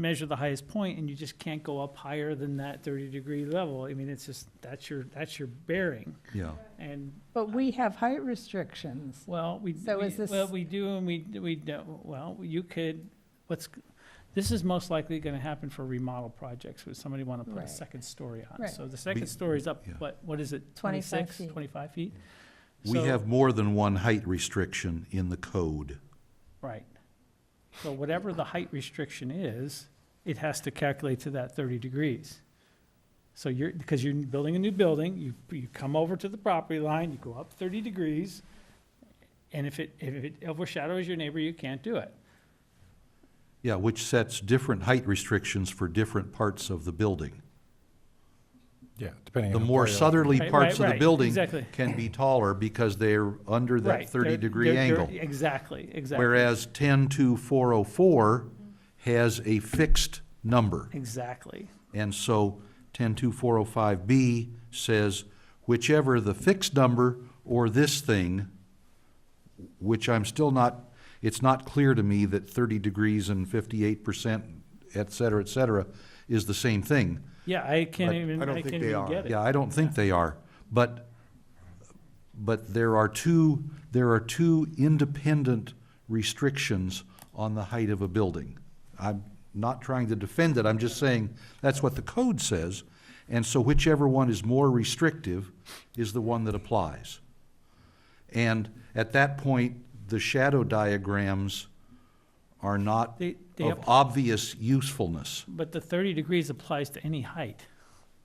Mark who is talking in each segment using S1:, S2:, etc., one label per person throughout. S1: measure the highest point and you just can't go up higher than that thirty degree level. I mean, it's just, that's your, that's your bearing.
S2: Yeah,
S1: And,
S3: But we have height restrictions.
S1: well, we,
S3: So
S1: we-
S3: is this-
S1: well, we do and we, we, don't. well, you could, what's, this is most likely gonna happen for remodel projects where somebody wanna put a
S3: Right.
S1: second story on.
S3: Right.
S1: So the second
S2: Be-
S1: story's up,
S2: yeah.
S1: what, what is it,
S3: 25
S1: twenty-six,
S3: feet.
S1: twenty-five feet?
S2: we
S1: So-
S2: have more than one height restriction in the code.
S1: Right. So whatever the height restriction is, it has to calculate to that thirty degrees. So you're, because you're building a new building, you, you come over to the property line, you go up thirty degrees, and if it, if it overshadows your neighbor, you can't do it.
S2: Yeah, which sets different height restrictions for different parts of the building.
S4: Yeah, depending
S2: The
S4: on.
S2: more
S4: part of-
S2: southerly
S1: Right,
S2: parts
S1: right,
S2: of the
S1: right,
S2: building
S1: exactly.
S2: can be taller because they're under
S1: Right.
S2: that
S1: They're-
S2: thirty-degree
S1: they're- they're-
S2: angle.
S1: Exactly, exactly.
S2: Whereas ten-two-four oh four has a fixed number.
S1: Exactly,
S2: And so ten-two-four-oh-five oh B says whichever the fixed number or this thing, which I'm still not, it's not clear to me that thirty degrees and fifty-eight percent, et cetera, et cetera, is the same thing.
S1: yeah, I can't
S2: But
S1: even,
S5: I don't
S1: I
S5: think
S1: can't
S5: they
S1: even
S5: are.
S1: get it.
S2: Yeah, I don't think they are, but, but there are two, there are two independent restrictions on the height of a building. I'm not trying to defend it, I'm just saying that's what the code says, and so whichever one is more restrictive is the one that applies. And at that point, the shadow diagrams are not
S1: They, they,
S2: of
S1: app-
S2: obvious usefulness,
S1: but the thirty degrees applies to any height.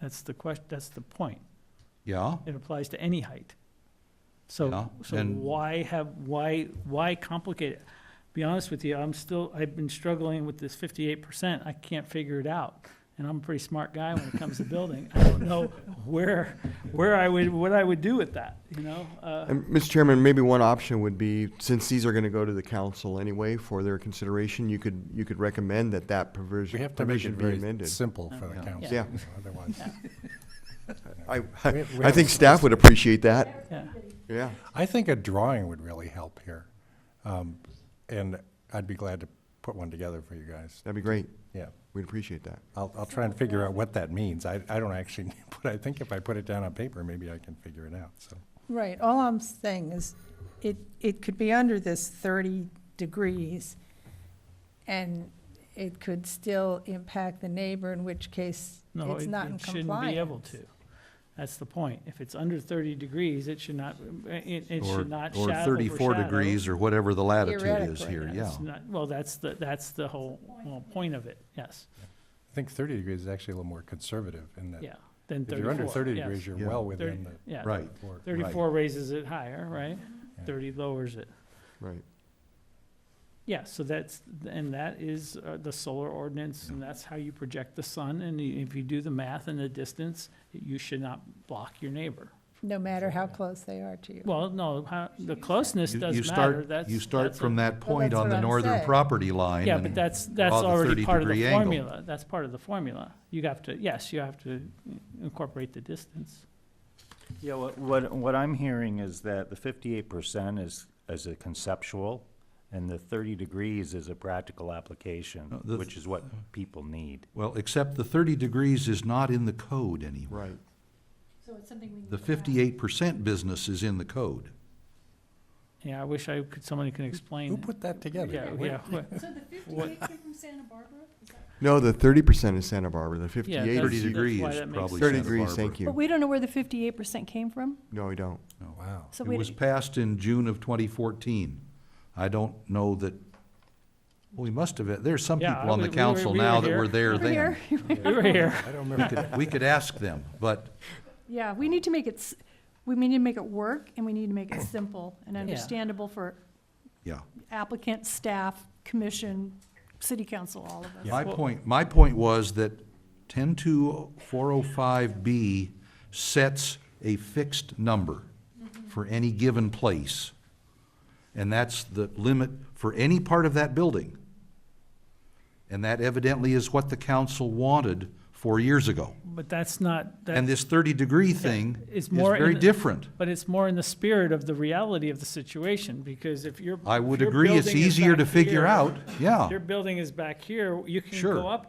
S1: That's the question, that's the point.
S2: yeah?
S1: It applies to any height.
S2: Yeah,
S1: So, so
S2: and-
S1: why have, why, why complicate it? Be honest with you, I'm still, I've been struggling with this fifty-eight percent, I can't figure it out. And I'm a pretty smart guy when it comes to building, I don't know where, where I would, what I would do with that, you know? Uh,
S5: And, Mr. Chairman, maybe one option would be, since these are going to go to the council anyway for their consideration, you could, you could recommend that that
S4: We
S5: provision,
S4: have to make it
S5: provision be
S4: very
S5: amended.
S4: simple for the
S2: Yeah.
S4: council,
S5: Yeah.
S4: you know, otherwise.
S5: I,
S4: We- we
S5: I
S4: have
S5: think
S4: some-
S5: staff would appreciate that,
S1: yeah.
S5: yeah.
S4: I think a drawing would really help here. Um, And I'd be glad to put one together for you guys.
S5: That'd be great.
S4: Yeah,
S5: We'd appreciate that.
S4: I'll, I'll try and figure out what that means. I, I don't actually, but I think if I put it down on paper, maybe I can figure it out, so.
S3: Right, all I'm saying is, it, it could be under this thirty degrees, and it could still impact the neighbor, in which case,
S1: No,
S3: it's
S1: it
S3: not in
S1: it shouldn't be able
S3: compliance.
S1: to. That's the point. If it's under thirty degrees, it should not, it, it
S2: Or-
S1: should not shadow.
S2: Or thirty-four
S1: overshadow.
S2: degrees, or whatever the latitude is
S3: Theoretically,
S2: here, yeah.
S1: That's not- Well, that's the, that's the whole, well, point of it, yes,
S4: I think thirty degrees is actually a little more conservative in that.
S1: yeah, then
S4: If
S1: thirty-four.
S4: you're under thirty
S1: yes.
S4: degrees, you're
S5: Yeah.
S4: well
S1: Thirty-
S4: within the.
S1: Yeah.
S2: Right.
S4: floor.
S1: Thirty-four raises it higher, right?
S4: Yeah.
S1: Thirty lowers it.
S5: Right.
S1: Yeah, so that's, and that is uh, the solar ordinance, and that's how you project the sun, and i- if you do the math and the distance, you should not block your neighbor.
S3: No matter how close they are to you.
S1: Well, no, how- the closeness
S2: You-
S1: does
S2: you
S1: matter,
S2: start-
S1: that's.
S2: You start
S1: that's a-
S2: from that point
S3: that's
S2: on
S3: what
S2: the
S3: I'm
S2: northern
S3: saying.
S2: property line.
S1: Yeah, but
S2: and
S1: that's, that's
S2: draw the
S1: already part of the
S2: 30 degree angle.
S1: formula, that's part of the formula. You have to, yes, you have to incorporate the distance.
S6: Yeah, what, what, what I'm hearing is that the fifty-eight percent is, is a conceptual, and the thirty degrees is a practical application,
S2: No, the-
S6: which is what people need.
S2: Well, except the thirty degrees is not in the code anymore.
S5: Right.
S2: The fifty-eight percent business is in the code.
S1: Yeah, I wish I could, somebody can explain.
S4: Who put that together?
S1: Yeah,
S4: Where-
S1: yeah. what-
S7: So the fifty-eight came from Santa Barbara? Is that-
S5: No, the thirty percent is Santa Barbara, the
S1: Yeah,
S5: fifty-eight
S1: that's-
S2: Thirty
S5: is,
S1: that's
S2: degrees
S1: why that makes
S2: probably
S5: thirty
S2: Santa
S5: degrees,
S2: Barbara.
S5: thank
S7: But
S5: you. Oh,
S7: we don't know where the fifty-eight percent came from,
S5: No, we don't.
S4: Wow.
S7: so
S2: It was
S7: we,
S2: passed in June of twenty fourteen. I don't know that, well, we must have, there's some
S1: Yeah,
S2: people on
S1: we-
S2: the
S1: we were-
S2: council
S1: we were
S2: now that
S1: here.
S2: were there then.
S1: We were here.
S4: I don't remember.
S2: We could ask them, but
S7: yeah, we need to make it, s- we need to make it work, and we need to make it simple and understandable for
S2: Yeah.
S7: applicant, staff, commission, city council, all of us.
S2: My point, my point was that ten-two, four-oh-five oh B sets a fixed number
S1: Mm-hmm.
S2: for any given place. And that's the limit for any part of that building. And that evidently is what the council wanted four years ago.
S1: But that's not,
S2: And
S1: that,
S2: this thirty-degree thing
S1: It's
S2: is
S1: more in
S2: very
S1: the-
S2: different.
S1: but it's more in the spirit of the reality of the situation, because if you're.
S2: I would
S1: if your
S2: agree, it's
S1: building is
S2: easier
S1: back
S2: to figure
S1: here-
S2: out, yeah.
S1: Your building is back here, you can
S2: Sure.
S1: go up